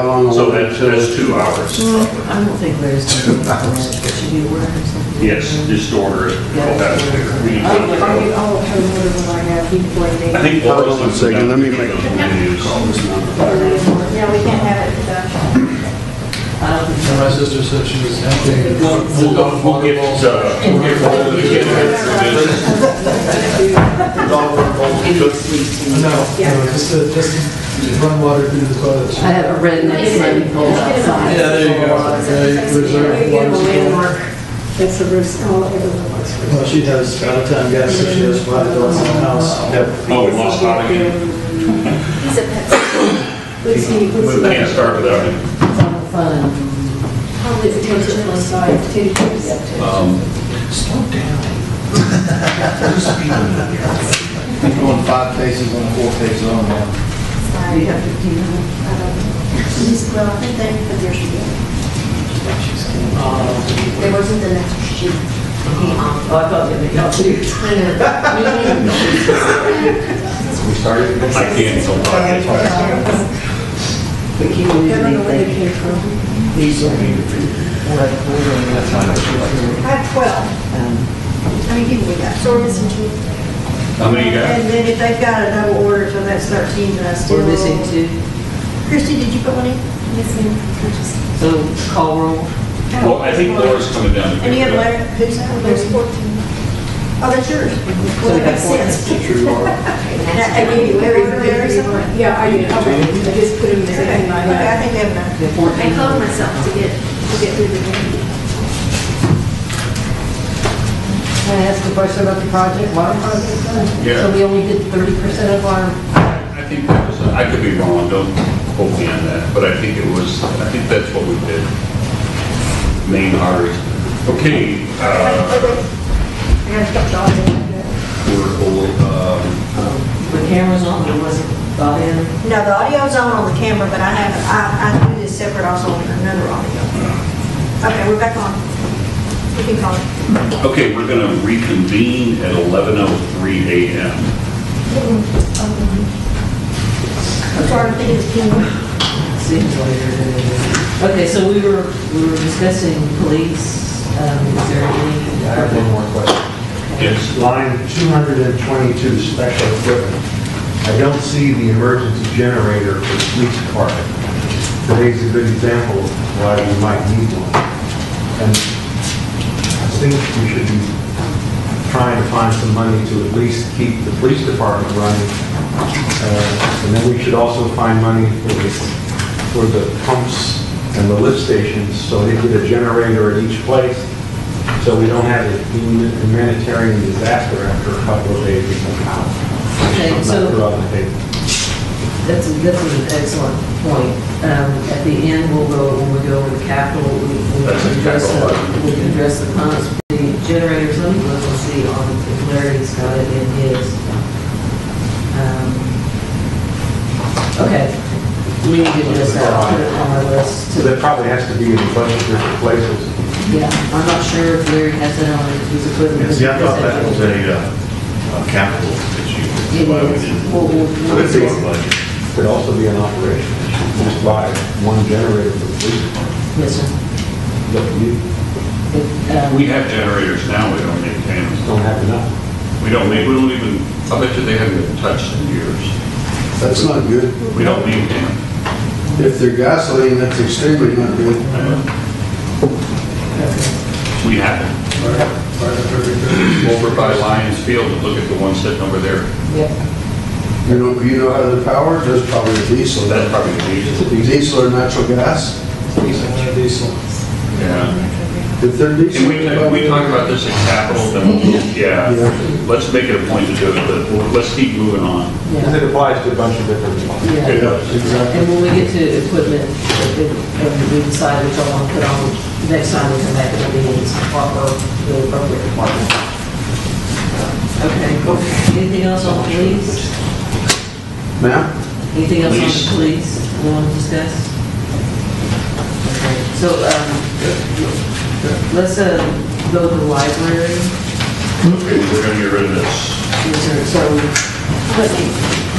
How long will So uh, it that's, till- that's two hours. I don't think Larry's gonna be aware, should be aware or something. Yes, just order it. Yeah. That's fair. We I'll, can I'll go. I'll have an order when I have before they. I think. Hold on a second, let me make- Menus. Yeah, we can't have it without. I don't think so. My sister said she was emptying. We'll, we'll, we'll get, uh, we'll get hold of it, get it through this. No, no, just to, just to run water through the toilet. I have a redneck swimming pool outside. Yeah, there you go. Yeah, you reserve water. supply. That's the risk, all everyone wants. Well, she has out of town gas, so she has five adults in the house. Yep. Oh, we lost Todd again. He's a pet. Let's see, let's We see. can't start without him. Fun. Probably the tension on the side, teddy bears. Going five paces on four paces on now. You have fifteen minutes? He's, well, I think they, but there should be. There wasn't the next sheet. He, um, Oh, I thought you had to go I know. We started. I can't, so Todd gets back. We keep losing I don't know where they anything. came from. These are, like, ordering that I have twelve. I mean, give me that. So we're missing two. How many you got? And then if they've got another order till next thirteen, then I still. We're missing two, Christie, did you put one in? Missing. so call roll. Well, I think Laura's coming down. to And you pick have it up. Larry, who's that? There's fourteen. Oh, that's yours. Well, we that got makes four. sense. True, Laura. I gave you Larry's, Larry's. Okay, Yeah, I did, okay, I just put them there in my okay, I bag. think they have none. The fourteen. I told myself to get, to get through the game. Can I ask a question about the project, water project? then? Yeah. So we only did thirty percent of our, I think that was, I could be wrong, don't quote me on that, but I think it was, I think that's what we did. Main arteries. Okay, uh, I gotta stop dodging. we're, all, um, the cameras on, it wasn't brought in. No, the audio's on on the camera, but I have, I, I do this separate also on another audio. Okay, we're back on. We can call it. okay, we're gonna reconvene at 11:03 a.m. I'm sorry, I'm thinking it's King. Seems later than it is. Okay, so we were, we were discussing police, um, is there any? uh, I have one more question. Yes, Line 222, special equipment. I don't see the emergency generator for the police department. Today's a good example of why we might need one. And I think we should be trying to find some money to at least keep the police department running. Uh, And then we should also find money for the, for the pumps and the lift stations, so they get a generator at each place, so we don't have a hum- humanitarian disaster after a couple of days or something. Okay, so- That's, a- that's an excellent point. Um, At the end, we'll go, when we go over the capital, we- we'll That's a address, capital the- item. we'll address the pumps, the generators, let me look and see on, if Larry's got it in his. Um, Okay, we need to address that, I'll put it on our list So to, that probably has to be in a bunch of different places. yeah, I'm not sure if Larry has that on his equipment. a uh, capital issue. It Why we is. didn't- We'll- we'll- It's in our budget. Could also be an operation, just buy one generator for the police department. Yes, sir. But you It, um, We have generators now, we don't need cameras. don't have enough. We don't need, we don't even, I bet you they haven't been touched in years. That's not good. We don't need them. If they're gasoline, that's extremely not good. We have them. Over by Lions Field, and look at the one sitting over there. yeah. You know, you know how they're powered, there's probably diesel. That's probably the easiest. Diesel or natural gas? Diesel. Diesel. Yeah. If they're Can diesel. we, can we talk about this in capital, then, yeah, Yeah. let's make it a point to do it, but let's keep moving on. Because Yeah, it applies to a bunch of different places. yeah. It does. Exactly. And when we get to equipment, if- if- and we decide which one to put on, next time we come back, it'll be in its proper, the appropriate department. Okay, cool. anything else on police? Ma'am? Anything else Police. on police we want to discuss? Okay, So, um, let's, uh, go to the library. Okay, we're gonna get rid of this. Yes, sir. So,